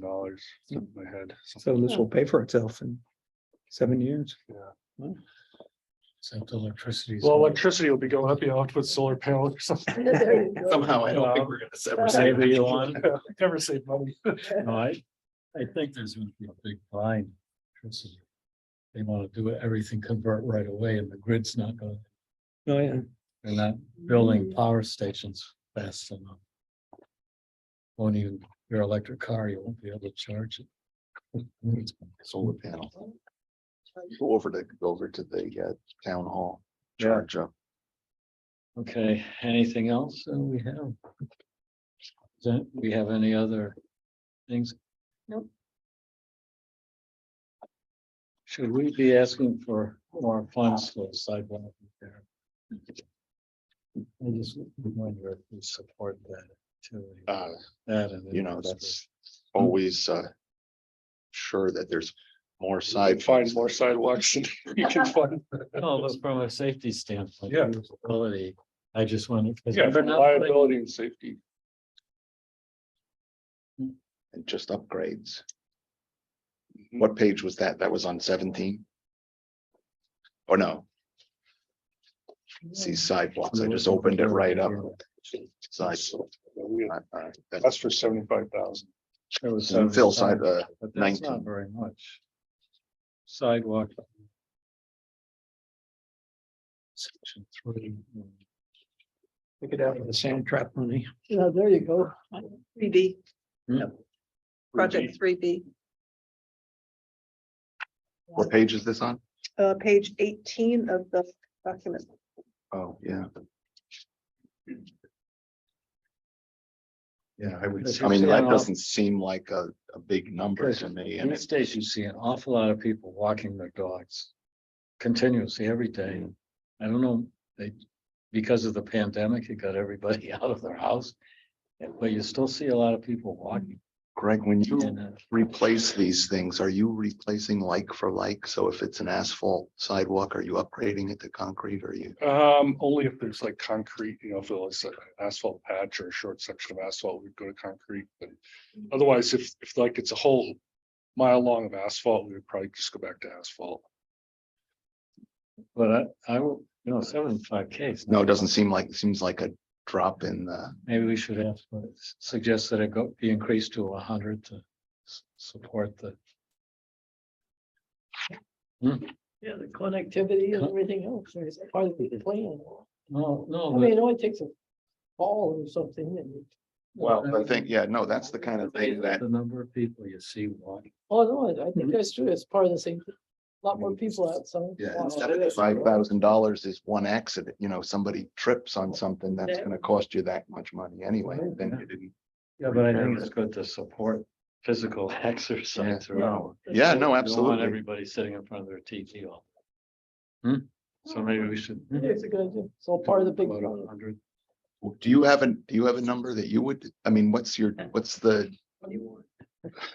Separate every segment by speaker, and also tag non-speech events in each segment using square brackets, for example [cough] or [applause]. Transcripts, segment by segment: Speaker 1: dollars, off the top of my head.
Speaker 2: So this will pay for itself in seven years.
Speaker 3: Except electricity.
Speaker 1: Well, electricity will be going up, you have to put solar panels or something.
Speaker 4: [laughs] There you go.
Speaker 5: Somehow, I don't think
Speaker 3: Well,
Speaker 5: we're gonna
Speaker 1: [laughs]
Speaker 5: ever save
Speaker 3: Save
Speaker 5: it.
Speaker 3: Elon.
Speaker 1: Never save
Speaker 4: [laughs]
Speaker 1: money.
Speaker 3: No, I, I think there's gonna be a big line. They wanna do everything convert right away and the grid's not gonna,
Speaker 2: Oh, yeah.
Speaker 3: they're not building
Speaker 4: Mm.
Speaker 3: power stations fast enough. Won't even, your electric car, you won't be able to charge it.
Speaker 5: Solar panel. Go over to, go over to the uh, town hall,
Speaker 3: Yeah.
Speaker 5: charge up.
Speaker 3: Okay, anything else that we have? Don't we have any other things? Nope. Should we be asking for more funds for the sidewalk repair? I just wonder if we support that too.
Speaker 5: Uh,
Speaker 3: That and.
Speaker 5: you know, that's always uh. Sure that there's more side.
Speaker 1: Find more sidewalks and [laughs] you can find.
Speaker 3: No, but from a safety standpoint.
Speaker 1: Yeah.
Speaker 3: usability, I just wonder. 'cause
Speaker 1: Yeah,
Speaker 3: we're not putting-
Speaker 1: liability and safety.
Speaker 5: Hmm. And just upgrades.
Speaker 1: Mm-hmm.
Speaker 5: What page was that? That was on seventeen? Or no? See sidewalks, I just opened it right up. Side. All right,
Speaker 1: That's
Speaker 5: that's-
Speaker 1: for seventy-five thousand.
Speaker 3: There was
Speaker 5: And Phil
Speaker 3: some-
Speaker 5: side, uh,
Speaker 3: But that's not
Speaker 5: 19.
Speaker 3: very much. Sidewalk. Section three.
Speaker 2: Take it out of the sand trap money.
Speaker 4: Yeah, there you go.
Speaker 6: Three B,
Speaker 1: Project.
Speaker 6: project three B,
Speaker 5: What page is this on?
Speaker 6: uh, page eighteen of the document.
Speaker 5: Oh, yeah. Yeah, I would,
Speaker 3: Because
Speaker 5: I mean,
Speaker 3: you're
Speaker 5: that
Speaker 3: saying-
Speaker 5: doesn't seem like a, a big number to me and
Speaker 3: These
Speaker 5: it's,
Speaker 3: days you see an awful lot of people walking their dogs continuously every day. I don't know, they, because of the pandemic, it got everybody [laughs] out of their house. But you still see a lot of people walking.
Speaker 5: Greg, when you
Speaker 3: and, uh,
Speaker 5: replace these things, are you replacing like for like? So if it's an asphalt sidewalk, are you upgrading it to concrete or are you?
Speaker 1: Um, only if there's like concrete, you know, if it was an asphalt patch or a short section of asphalt, we'd go to concrete, but otherwise, if, if like it's a whole mile long of asphalt, we would probably just go back to asphalt.
Speaker 3: But I, I, will- you know, seventy-five Ks.
Speaker 5: No, it doesn't seem like, it seems like a drop in the,
Speaker 3: Maybe we should ask, for- suggest that it go, be increased to hundred to s- support the.
Speaker 4: Yeah, the connectivity and everything else is part of the plan.
Speaker 3: No,
Speaker 4: I
Speaker 3: no.
Speaker 4: mean, it only takes a fall or something and, you-
Speaker 5: well, I think, yeah, no, that's the kind of thing that,
Speaker 3: The number of people you see walking.
Speaker 4: oh, no, I- I think that's true. It's part of the same, a lot more people outside.
Speaker 5: yeah,
Speaker 4: Wow.
Speaker 5: five thousand dollars is one accident, you know, somebody trips on something that's gonna cost you that much money anyway, then you didn't.
Speaker 3: Yeah, but I think it's good to support physical [laughs] exercise.
Speaker 5: Yeah,
Speaker 3: throughout.
Speaker 5: no. Yeah,
Speaker 3: You don't
Speaker 5: no,
Speaker 3: want
Speaker 5: absolutely.
Speaker 3: Everybody sitting in front of their TV all. Hmm, so maybe we should.
Speaker 4: It's a good, idea. it's all part of the big.
Speaker 3: Go to
Speaker 4: plan.
Speaker 3: 100.
Speaker 5: Do you have an, do you have a number that you would, I mean, what's your, what's the?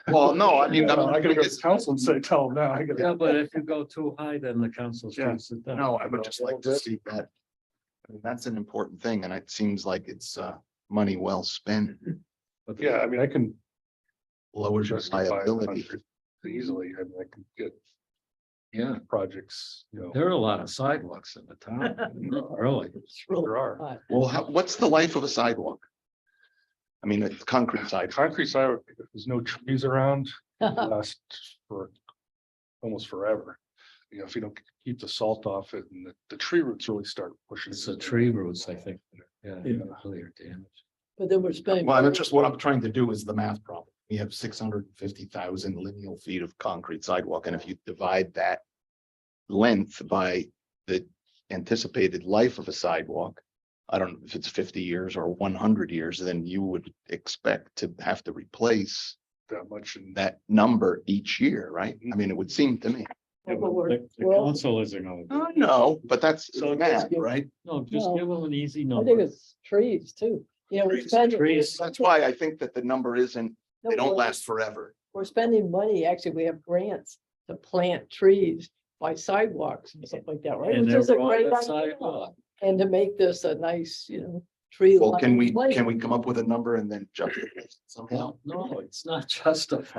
Speaker 5: Well, no, I [laughs] mean,
Speaker 1: I
Speaker 5: I'm-
Speaker 1: gotta go to council and say, tell them now, I gotta.
Speaker 3: Yeah, but if you go too high, then the council
Speaker 1: Yeah,
Speaker 3: shoots it down.
Speaker 5: no, I would
Speaker 3: Go
Speaker 5: just
Speaker 3: a
Speaker 5: like
Speaker 3: little
Speaker 5: to
Speaker 3: bit.
Speaker 5: see that. I mean, That's an important thing and it seems like it's uh money well spent,
Speaker 3: But
Speaker 1: Yeah, I mean, I can
Speaker 5: lowers your
Speaker 1: justify a
Speaker 5: liability.
Speaker 1: hundred easily, I mean, I can get
Speaker 3: Yeah,
Speaker 1: projects, you know.
Speaker 3: there are a lot of sidewalks in the
Speaker 4: [laughs]
Speaker 3: town, really.
Speaker 1: There are.
Speaker 4: High.
Speaker 5: Well, how, what's the life of a sidewalk? I mean, a concrete sidewalk,
Speaker 1: Concrete sidewalk, if there's no trees
Speaker 4: [laughs]
Speaker 1: around, it lasts for almost forever. You know, if you don't keep the salt off it and the, the tree roots really start pushing.
Speaker 3: It's the tree roots, I think. Yeah.
Speaker 2: Yeah.
Speaker 3: Really are damaged.
Speaker 4: But then we're spending.
Speaker 5: well, that's just what I'm trying to do is the math problem. We have six hundred and fifty thousand lineal feet of concrete sidewalk and if you divide that. Length by the anticipated life of a sidewalk. I don't know if it's fifty years or one hundred years, then you would expect to have to replace.
Speaker 1: That much and
Speaker 5: that number each year, right? I mean, it would seem to me.
Speaker 4: Yeah, Oh, but we're-
Speaker 3: The the
Speaker 4: we're all-
Speaker 3: council isn't gonna.
Speaker 5: No, but that's
Speaker 3: Uh, So it
Speaker 5: math,
Speaker 4: just gives-
Speaker 5: right?
Speaker 3: No, just
Speaker 4: No.
Speaker 3: give them an easy
Speaker 4: I think
Speaker 3: number.
Speaker 4: it's trees too. Yeah, we're
Speaker 5: Trees,
Speaker 4: spending.
Speaker 3: trees,
Speaker 5: That's why I think that the number isn't,
Speaker 4: No,
Speaker 5: they don't
Speaker 4: we're-
Speaker 5: last forever.
Speaker 4: We're spending money. Actually, we have grants to plant trees by sidewalks and stuff like that, right?
Speaker 3: And
Speaker 4: Which
Speaker 3: they're
Speaker 4: is a
Speaker 3: on
Speaker 4: great
Speaker 3: the
Speaker 4: idea.
Speaker 3: sidewalk.
Speaker 4: And to make this a nice, you know, tree.
Speaker 5: Well, can
Speaker 4: lined
Speaker 5: we,
Speaker 4: place.
Speaker 5: can we come up with a number and then jump it somehow?
Speaker 3: No, it's not justified.